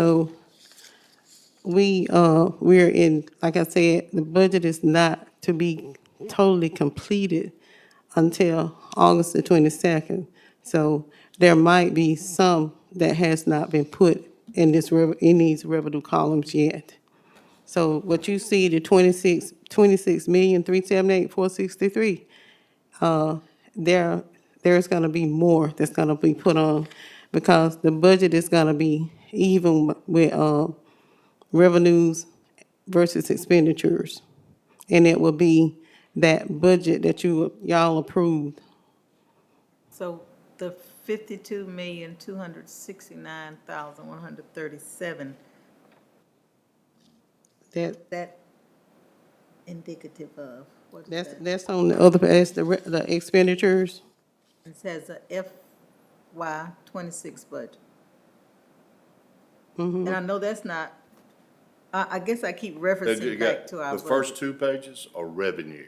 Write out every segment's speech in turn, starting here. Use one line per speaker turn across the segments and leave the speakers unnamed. So we, uh, we're in, like I said, the budget is not to be totally completed until August the twenty-second. So there might be some that has not been put in this, rev- in these revenue columns yet. So what you see, the twenty-six, twenty-six million, three seven eight, four sixty-three, there, there's gonna be more that's gonna be put on because the budget is gonna be even with, uh, revenues versus expenditures. And it will be that budget that you, y'all approved.
So the fifty-two million, two hundred sixty-nine thousand, one hundred thirty-seven,
That,
that indicative of, what is
that's,
that?
that's on the other, that's the, re- the expenditures.
It says a FY twenty-six budget. And I know that's not, I, I guess I keep
That you
referencing
got-
back to our
The first
budget.
two pages are revenue.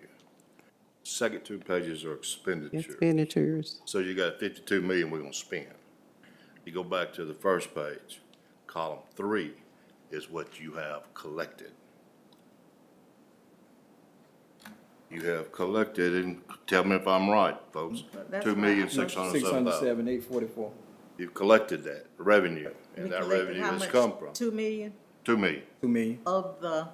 Second two pages are expenditure.
Expenditures.
So you got fifty-two million we're gonna spend. You go back to the first page, column three is what you have collected. You have collected, and tell me if I'm right, folks,
That's
two million, six hundred and
Six
seven
hundred
thousand.
seven, eight forty-four.
You've collected that revenue,
We
and that
collected
revenue
how
has
much?
come from,
Two million
two million.
Two million.
of the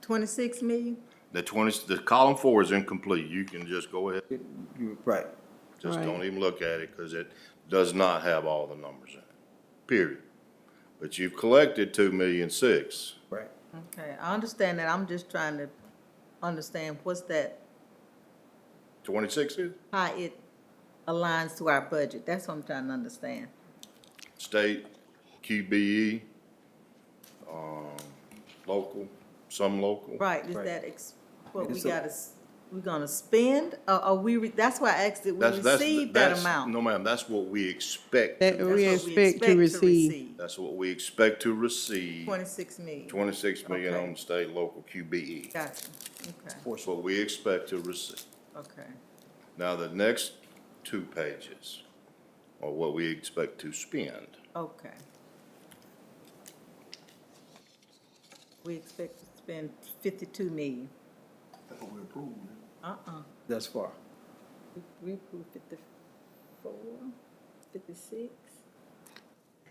twenty-six million?
The twenty, the column four is incomplete. You can just go ahead
You- Right.
Just
Right.
don't even look at it, because it does not have all the numbers in it, period. But you've collected two million six.
Right.
Okay, I understand that, I'm just trying to understand what's that,
Twenty-six is?
how it aligns to our budget, that's what I'm trying to understand.
State, QBE, um, local, some local.
Right, is
Right.
that ex, what we
It's a-
gotta, s- we gonna spend, or are we, re- that's why I asked, did we
That's, that's,
receive that
that's,
amount?
no ma'am, that's what we expect.
That
That's
we
what
expect to receive.
That's what we expect to receive,
Twenty-six million,
twenty-six million
Okay.
on state, local, QBE.
gotcha, okay,
That's what we expect to receive.
okay,
Now, the next two pages are what we expect to spend.
okay. We expect to spend fifty-two million. Uh-uh,
Thus far.
We- we approved fifty-four, fifty-six?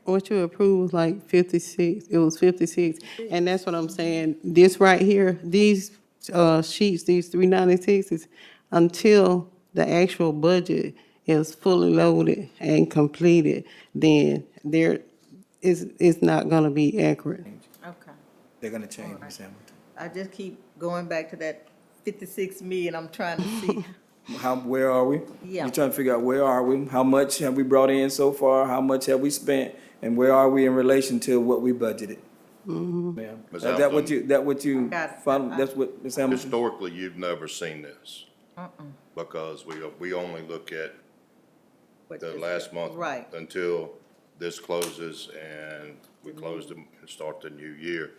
What you approved was like fifty-six, it was fifty-six, and that's what I'm saying, this right here, these, uh, sheets, these three ninety-sixes, until the actual budget is fully loaded and completed, then there is, it's not gonna be accurate.
Okay.
They're gonna change Ms. Hamilton.
I just keep going back to that fifty-six million, I'm trying to see,
How, where are we?
Yeah.
You're trying to figure out where are we? How much have we brought in so far? How much have we spent? And where are we in relation to what we budgeted? Ma'am.
Ms.
Is that what
Hamilton?
you, that what you,
Mm-hmm. Got it.
found- that's what, Ms. Hamilton?
Historically, you've never seen this. Because we, we only look at
what
the
is
last
it?
month.
Right,
Until this closes and we close them and start the new year.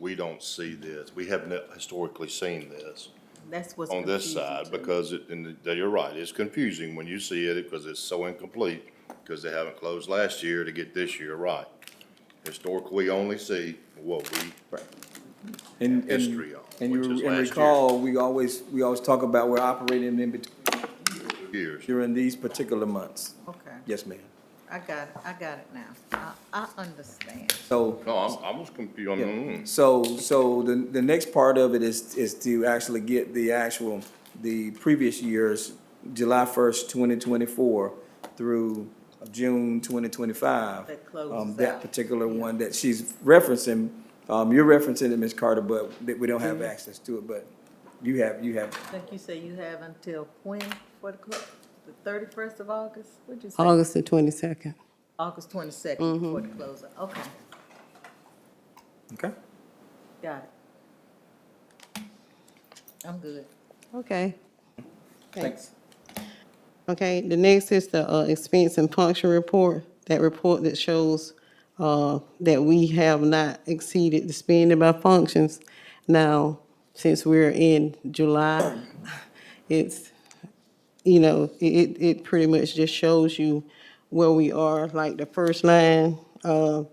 We don't see this. We haven't historically seen this
that's what's
on this
confusing
side
to me.
because it, and you're right, it's confusing when you see it because it's so incomplete. Because they haven't closed last year to get this year right. Historically, we only see what we,
And, and,
history of,
and
which is last
you, and
year.
recall, we always, we always talk about we're operating in between
years.
during these particular months.
Okay,
Yes, ma'am.
I got it, I got it now, I, I understand.
So.
No, I'm, I was confused. I'm, mm.
So, so the, the next part of it is, is to actually get the actual, the previous year's July first, twenty twenty-four through June twenty twenty-five.
That closes
Um, that
out.
particular one that she's referencing, um, you're referencing it, Ms. Carter, but that we don't have
Mm-hmm.
access to it, but you have, you have,
I think you say you have until when for the clo- the thirty-first of August, what'd you say?
August the twenty-second.
August twenty-second for the closing, okay,
okay?
got it. I'm good.
Okay. Thanks. Okay, the next is the uh, expense and function report, that report that shows uh, that we have not exceeded the spending by functions. Now, since we're in July, it's, you know, it, it it pretty much just shows you where we are, like the first line, uh,